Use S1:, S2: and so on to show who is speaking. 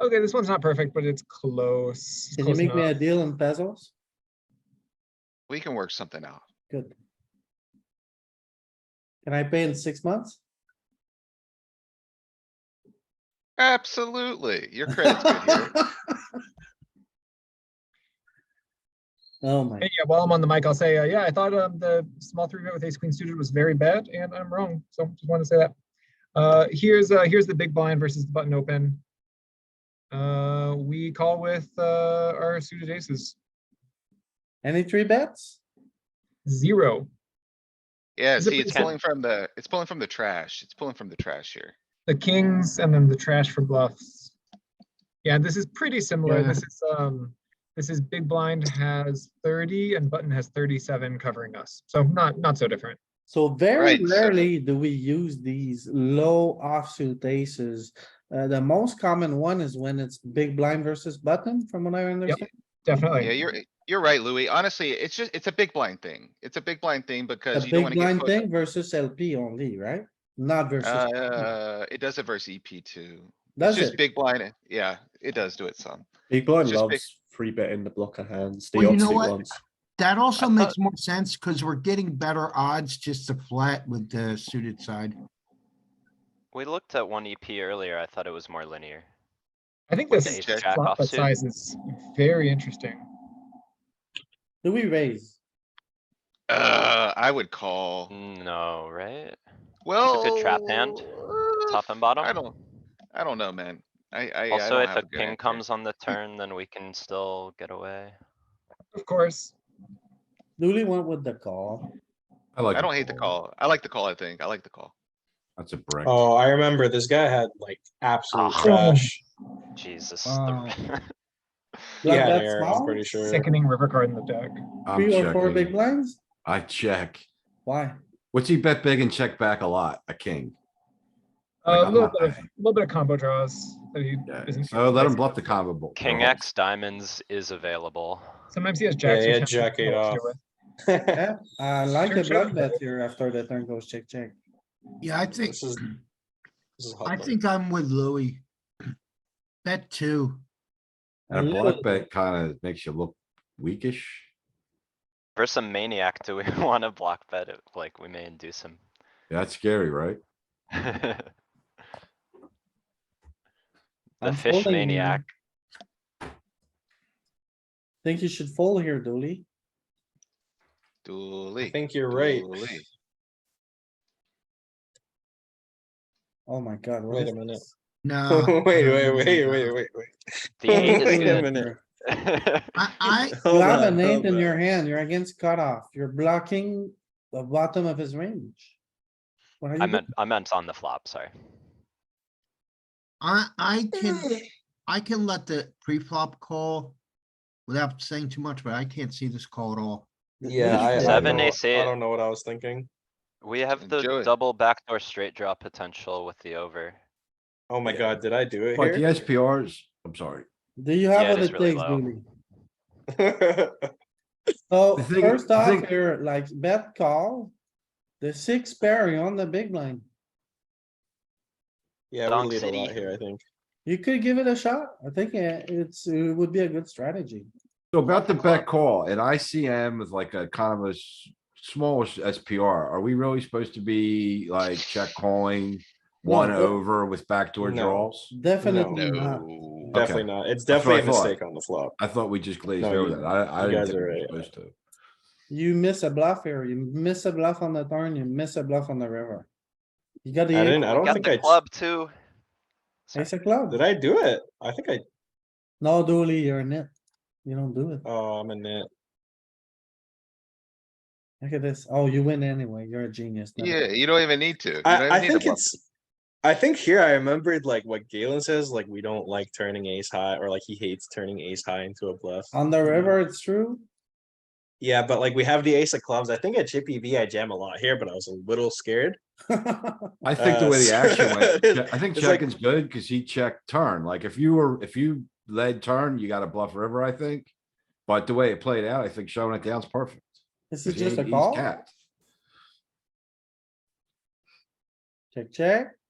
S1: Okay, this one's not perfect, but it's close. It's
S2: Can you
S1: close
S2: make me a
S1: enough.
S2: deal in pesos?
S3: We can work something out.
S2: Good. Can I pay in six months?
S3: Absolutely. Your credit's good here.
S2: Oh my,
S1: Hey, yeah, while I'm on the mic, I'll say, uh, yeah, I thought um, the small three bet with ace queen suited was very bad, and I'm wrong. So just wanted to say that. Uh, here's uh, here's the big blind versus the button open. Uh, we call with uh, our suited aces
S2: any three bets?
S1: zero.
S3: Yeah,
S1: Is it
S3: see, it's
S1: pretty
S3: pulling from the, it's pulling from the trash. It's pulling from the trash here.
S1: The kings and then the trash for bluffs. Yeah, this is pretty similar.
S4: Yeah.
S1: This is um, this is big blind has 30 and button has 37 covering us. So not not so different.
S2: So very
S3: Right, so-
S2: rarely do we use these low offsuit aces. Uh, the most common one is when it's big blind versus button, from what I understand.
S1: Definitely.
S2: Oh,
S3: Yeah, you're, you're right, Louis. Honestly, it's just, it's a big blind thing. It's a big blind thing because
S2: The
S3: you don't
S2: big
S3: wanna get
S2: blind
S3: put.
S2: thing versus LP only, right? Not versus,
S3: Uh, it does it versus EP too. It's
S2: does
S3: just
S2: it?
S3: big blind. eh, Yeah, it does do it some.
S5: Big blind
S3: Just big-
S5: loves free betting the blocker hands, the
S4: Well, you know
S5: offsuit
S4: what?
S5: ones.
S4: That also
S3: thought-
S4: makes more sense because we're getting better odds just to flat with the suited side.
S6: We looked at one EP earlier. I thought it was more linear.
S1: I think
S3: With
S1: this
S3: ace jack
S1: flop
S6: offsuit.
S1: size is very interesting.
S2: Do we raise?
S3: Uh, I would call.
S6: No, right?
S3: Well.
S6: good trap hand,
S3: uh,
S6: Top and bottom?
S3: I don't, I don't know, man. I, I. I
S6: Also,
S3: don't
S6: if
S3: have
S6: a
S3: good
S6: king
S3: answer.
S6: comes on the turn, then we can still get away.
S1: Of course.
S2: Dooley went with the call.
S7: I like.
S3: I don't hate the call. I like the call, I think. I like the call.
S7: That's a brick.
S8: Oh, I remember this guy had like absolute
S6: Ah.
S8: trash.
S6: Jesus. the-
S1: Wow.
S8: He
S2: Like
S8: had
S2: that
S8: air,
S2: small?
S8: I'm pretty sure.
S1: Sickening river card in the deck.
S7: I'm
S2: Three or four big
S7: checking.
S2: blinds?
S7: I check.
S2: Why?
S7: What's he bet big and check back a lot? A king. Like,
S1: Uh, a
S7: I'm
S1: little
S7: not
S1: bit of,
S7: betting.
S1: little bit of combo draws. that he
S7: Yeah,
S1: isn't
S7: so Oh, let him
S1: realizing.
S7: bluff the combo. Oh, bo-
S6: King
S7: bluff.
S6: X diamonds is available.
S1: Sometimes he has
S8: Yeah,
S1: jacks.
S8: he
S1: which
S8: had
S1: have
S8: jack
S1: nothing
S8: eight
S1: else to
S8: off.
S1: do with.
S2: Yeah, I like the
S1: Check, check.
S2: blood bet here after the turn goes check, check.
S4: Yeah, I think,
S8: This is. This is
S4: I
S8: hot.
S4: think I'm with Louis. Bet two.
S2: A
S7: And a
S2: little
S7: block bet kinda makes you look weakish.
S6: For some maniac, do we wanna block bet it? Like, we may induce him.
S7: Yeah, That's scary, right?
S6: The
S2: I'm
S6: fish
S2: folding here.
S6: maniac.
S2: Think you should fold here, Dooley.
S3: Dooley.
S8: I think you're right.
S3: Dooley.
S2: Oh my god. what
S8: Wait a
S2: is
S8: minute.
S2: this?
S4: No.
S7: Uh,
S8: Wait, wait, wait, wait, wait, wait.
S6: The eight
S8: Wait a
S6: is
S8: minute.
S6: gonna.
S4: I, I,
S2: You
S8: Hold
S2: have
S8: on,
S2: an eight
S8: hold
S2: in
S8: on.
S2: your hand, you're against cutoff, you're blocking the bottom of his range. What are
S6: I
S2: you
S6: meant,
S2: doing?
S6: I meant on the flop, sorry.
S4: I, I can, I can let the pre-flop call without saying too much, but I can't see this call at all.
S8: Yeah, I, I
S6: Seven,
S8: don't know-
S6: ace eight.
S8: I don't know what I was thinking.
S6: We have
S3: Enjoy
S6: the
S3: it.
S6: double backdoor straight draw potential with the over.
S8: Oh my
S7: Yeah.
S8: god, did I do it
S7: Like the
S8: here?
S7: SPRs, I'm sorry.
S2: Do you
S6: Yeah,
S2: have
S6: it
S2: what
S6: is
S2: it
S6: really
S2: takes,
S6: low.
S2: Dooley?
S7: The
S2: So
S7: thing-
S2: first
S7: the
S2: off,
S7: thing-
S2: you're like bet call. The six pair, you're on the big line.
S8: Yeah, we
S6: Donk
S8: lead a lot
S6: City.
S8: here, I think.
S2: You could give it a shot. I think uh, it's, it would be a good strategy.
S7: So about the bet call, an ICM with like a kind of a s- small s- SPR, are we really supposed to be like check calling?
S2: No,
S7: One
S2: but-
S7: over with backdoor
S8: No.
S7: draws?
S8: Oh,
S2: Definitely not.
S3: No.
S7: Okay.
S8: Definitely not. It's
S7: That's what I
S8: definitely a
S7: thought.
S8: mistake on the flop.
S7: I thought we just glazed
S8: No,
S7: over
S8: you-
S7: that. I, I
S8: you
S7: didn't
S8: guys
S7: think we
S8: are
S7: were
S8: right.
S7: supposed to.
S2: You miss a bluff here, you miss a bluff on the turn, you miss a bluff on the river. You got
S8: I
S2: the,
S8: didn't, I don't
S6: Got
S8: think
S6: the
S8: I,
S6: club too.
S2: ace of club.
S8: did I do it? I think I,
S2: No, Dooley, you're in it. You don't do it.
S8: oh, I'm in it.
S2: Look at this. Oh, you win anyway. You're a genius. now.
S3: Yeah, you don't even need to. You don't even
S8: I, I
S3: need to
S8: think
S3: bluff.
S8: it's, I think here I remembered like what Galen says, like we don't like turning ace high, or like he hates turning ace high into a bluff.
S2: On the river, it's true.
S8: Yeah, but like we have the ace of clubs. I think at Chippy V I jam a lot here, but I was a little scared.
S7: I think the
S8: Uh,
S7: way the action went,
S8: it's-
S7: che- I think
S8: it's like-
S7: checking's good because he checked turn. Like if you were, if you led turn, you got a bluff river, I think. But the way it played out, I think showing it down's perfect.
S2: This
S7: 'cause
S2: is just
S7: he-
S2: a
S7: he's
S2: call.
S7: capped.
S2: Check, check.